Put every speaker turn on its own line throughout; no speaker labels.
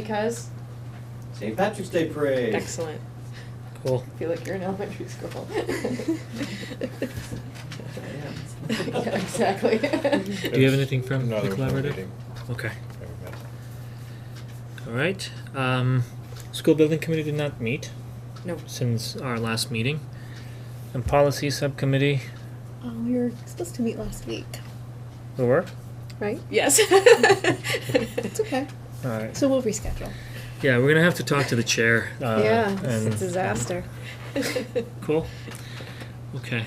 Because?
St. Patrick's Day Parade.
Excellent.
Cool.
I feel like you're in elementary school. Yeah, exactly.
Do you have anything from the
No, there was no
collaborative?
meeting.
Okay,
Never met.
all right. Um, school building committee did not meet
No,
since our last meeting. And policy subcommittee,
Oh, we were supposed to meet last week,
we were?
right?
yes.
It's okay.
All right.
So we'll reschedule.
Yeah, we're gonna have to talk to the chair. Uh,
yeah, it's a
and-
disaster.
Cool. Okay.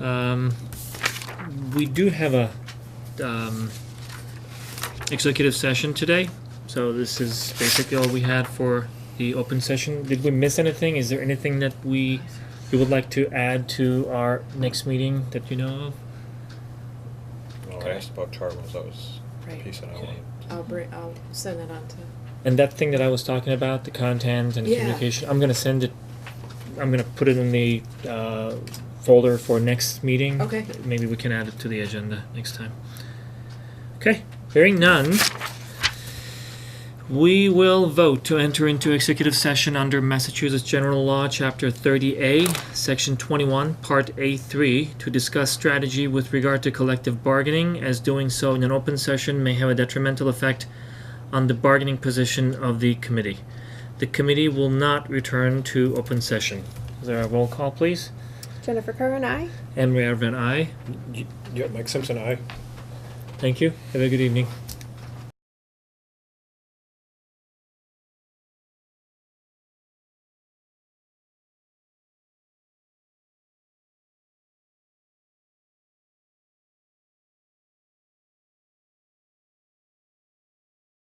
Um, we do have a, um, executive session today, so this is basically all we had for the open session. Did we miss anything? Is there anything that we, you would like to add to our next meeting that you know of?
Well, Oh, I
Okay.
asked about charters, that was the
Right.
piece that I
Okay.
wanted.
I'll bring, I'll send that on to,
And that thing that I was talking about, the content and
Yeah.
communication, I'm gonna send it, I'm gonna put it in the, uh, folder for next meeting.
Okay.
Maybe we can add it to the agenda next time. Okay, hearing none. We will vote to enter into executive session under Massachusetts General Law, Chapter thirty A, Section twenty-one, Part A three, to discuss strategy with regard to collective bargaining, as doing so in an open session may have a detrimental effect on the bargaining position of the committee. The committee will not return to open session. Is there a roll call, please?
Jennifer Kerr and I.
Emery Van I.
Yeah, Mike Simpson, aye.
Thank you. Have a good evening.